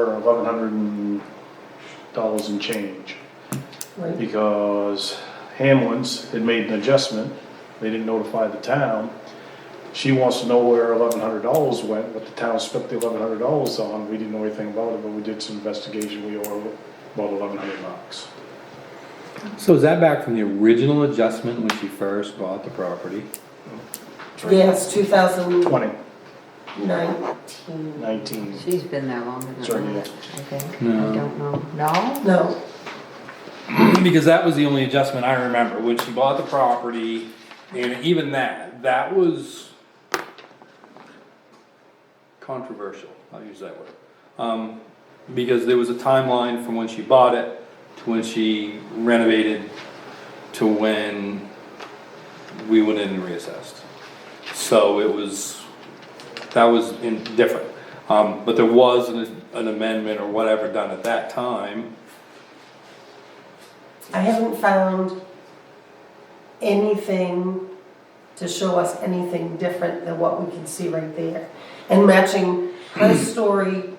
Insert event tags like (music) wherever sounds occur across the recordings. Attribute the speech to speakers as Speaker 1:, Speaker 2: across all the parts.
Speaker 1: hundred and dollars and change.
Speaker 2: Right,
Speaker 1: Because Hamlin's had made an adjustment, they didn't notify the town. She wants to know where eleven hundred dollars went, but the town spent the eleven hundred dollars on, we didn't know anything about it, but we did some investigation, we owe about eleven hundred bucks.
Speaker 3: So is that back from the original adjustment when she first bought the property?
Speaker 2: yes, two thousand
Speaker 1: Twenty,
Speaker 2: nineteen,
Speaker 1: nineteen,
Speaker 4: She's been there longer
Speaker 1: Sorry,
Speaker 4: than
Speaker 1: yeah.
Speaker 4: that, I think.
Speaker 3: No.
Speaker 4: I don't know. No?
Speaker 2: no,
Speaker 3: Because that was the only adjustment I remember, when she bought the property, and even that, that was controversial, I'll use that word. Um, because there was a timeline from when she bought it to when she renovated to when we went in and reassessed. So it was, that was in, different. Um, but there was an, an amendment or whatever done at that time.
Speaker 2: I haven't found anything to show us anything different than what we can see right there. And matching
Speaker 3: (clears throat)
Speaker 2: her story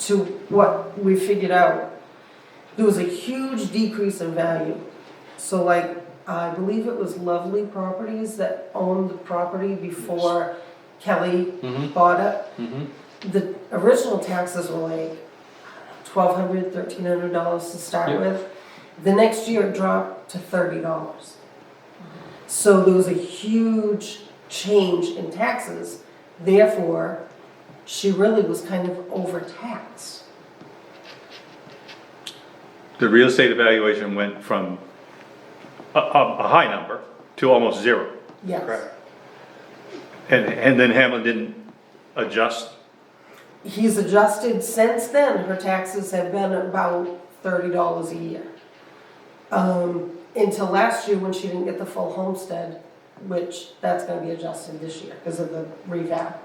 Speaker 2: to what we figured out, there was a huge decrease in value. So like, I believe it was Lovely Properties that owned the property before Kelly
Speaker 3: Mhm.
Speaker 2: bought it.
Speaker 3: Mm-hmm.
Speaker 2: the original taxes were like twelve hundred, thirteen hundred dollars to start
Speaker 3: Yeah.
Speaker 2: with. The next year it dropped to thirty dollars. So there was a huge change in taxes, therefore, she really was kind of overtaxed.
Speaker 5: The real estate evaluation went from a, a, a high number to almost zero.
Speaker 2: Yes,
Speaker 5: And, and then Hamlin didn't adjust.
Speaker 2: he's adjusted since then, her taxes have been about thirty dollars a year. Um, until last year when she didn't get the full homestead, which that's gonna be adjusted this year because of the revamp.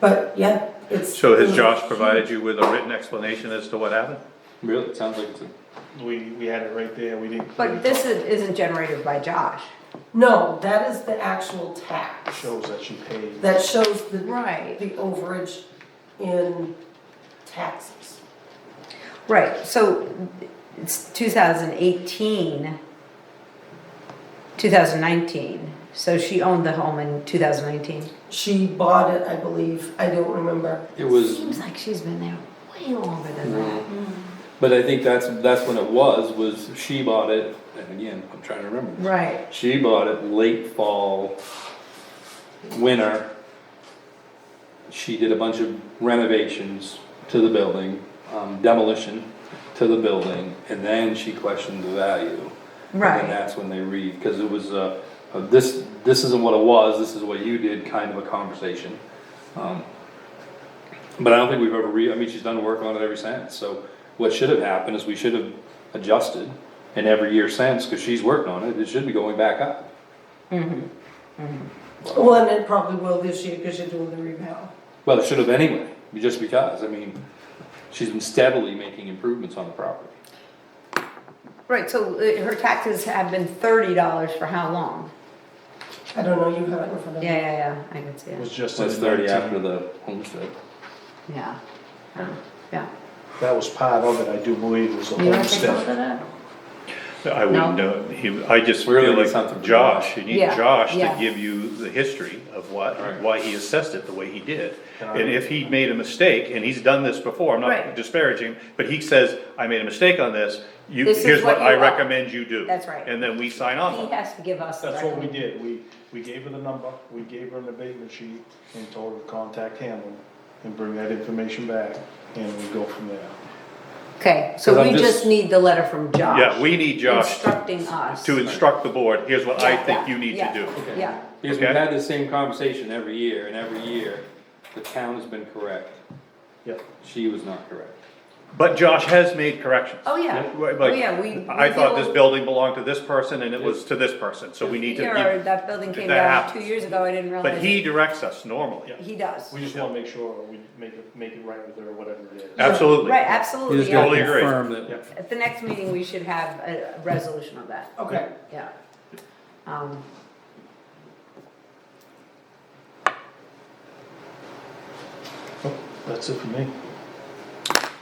Speaker 2: But yeah, it's.
Speaker 5: So
Speaker 4: Mm-hmm.
Speaker 5: has Josh provided you with a written explanation as to what happened?
Speaker 3: Really, it sounds like it's a
Speaker 1: we, we had it right there, we didn't.
Speaker 4: But this is- isn't generated by Josh.
Speaker 2: No, that is the actual tax
Speaker 1: Shows that she paid.
Speaker 2: that shows the.
Speaker 4: Right.
Speaker 2: The overage in taxes.
Speaker 4: Right, so it's 2018, 2019. So she owned the home in 2019.
Speaker 2: She bought it, I believe, I don't remember.
Speaker 3: It was,
Speaker 4: Seems like she's been there way longer than that.
Speaker 3: but I think that's, that's when it was, was she bought it, and again, I'm trying to remember.
Speaker 4: Right.
Speaker 3: She bought it late fall, winter. She did a bunch of renovations to the building, um, demolition to the building, and then she questioned the value.
Speaker 4: Right.
Speaker 3: And that's when they read, cause it was, uh, uh, this, this isn't what it was, this is what you did, kind of a conversation. Um, But I don't think we've ever re, I mean, she's done work on it ever since, so what should have happened is we should have adjusted. And every year since, cause she's worked on it, it should be going back up.
Speaker 2: Well, and it probably will this year because you're doing the revamp.
Speaker 3: Well, it should have anyway, just because, I mean, she's been steadily making improvements on the property.
Speaker 4: Right, so uh, her taxes have been $30 for how long?
Speaker 2: I don't know, you have it in front of you.
Speaker 4: Yeah, yeah, yeah, I can see
Speaker 1: It was
Speaker 4: it.
Speaker 1: just.
Speaker 3: Since
Speaker 1: in
Speaker 3: thirty
Speaker 1: 19.
Speaker 3: after the homestead.
Speaker 4: Yeah. Yeah. Yeah.
Speaker 1: That was part of it, I do believe, was the
Speaker 4: You wanna take
Speaker 1: homestead.
Speaker 4: over that?
Speaker 5: I wouldn't know, he, I just
Speaker 3: We're
Speaker 5: feel
Speaker 3: gonna need
Speaker 5: like
Speaker 3: something from
Speaker 5: Josh, you need
Speaker 4: Yeah,
Speaker 5: Josh to
Speaker 4: yeah.
Speaker 5: give you the history of what,
Speaker 3: Right.
Speaker 5: why he assessed it the way he did.
Speaker 1: And I-
Speaker 5: And if he made a mistake, and he's done this before, I'm
Speaker 4: Right.
Speaker 5: not disparaging, but he says, I made a mistake on this, you,
Speaker 4: This is
Speaker 5: here's
Speaker 4: what
Speaker 5: what I
Speaker 4: you are."
Speaker 5: recommend you do.
Speaker 4: That's right.
Speaker 5: And then we sign off
Speaker 4: He
Speaker 5: on it.
Speaker 4: has to give us. the
Speaker 1: That's what we
Speaker 4: recommend-
Speaker 1: did, we, we gave her the number, we gave her an abatement sheet, and told her to contact Hamlin, and bring that information back, and we go from there.
Speaker 4: Okay,
Speaker 3: 'Cause
Speaker 4: so
Speaker 3: I'm
Speaker 4: we
Speaker 3: just-
Speaker 4: just need the letter from Josh.
Speaker 5: Yeah, we need Josh
Speaker 4: Instructing us.
Speaker 5: to instruct the board, here's what I
Speaker 4: Yeah,
Speaker 5: think
Speaker 4: yeah,
Speaker 5: you need to
Speaker 4: yeah.
Speaker 5: do.
Speaker 3: Okay.
Speaker 4: Yeah.
Speaker 3: Because we've
Speaker 5: Okay.
Speaker 3: had the same conversation every year, and every year, the town has been correct,
Speaker 1: Yep.
Speaker 3: she was not correct.
Speaker 5: But Josh has made corrections.
Speaker 4: Oh, yeah.
Speaker 5: Right,
Speaker 4: Oh, yeah, we-
Speaker 5: Like, I
Speaker 4: we
Speaker 5: thought this
Speaker 4: deal-
Speaker 5: building belonged to this person and it was to this person, so we need to.
Speaker 4: Here, that building came
Speaker 5: that
Speaker 4: down two
Speaker 5: happens.
Speaker 4: years ago, I didn't realize.
Speaker 5: But he directs us normally,
Speaker 4: it. He does.
Speaker 1: We just wanna make sure we make it, make it right with her, whatever it is.
Speaker 5: absolutely.
Speaker 4: Right, absolutely, yeah.
Speaker 5: Totally agree.
Speaker 3: that.
Speaker 4: At the next meeting, we should have a a resolution of that,
Speaker 2: Okay.
Speaker 4: yeah. Um,
Speaker 1: That's it for me.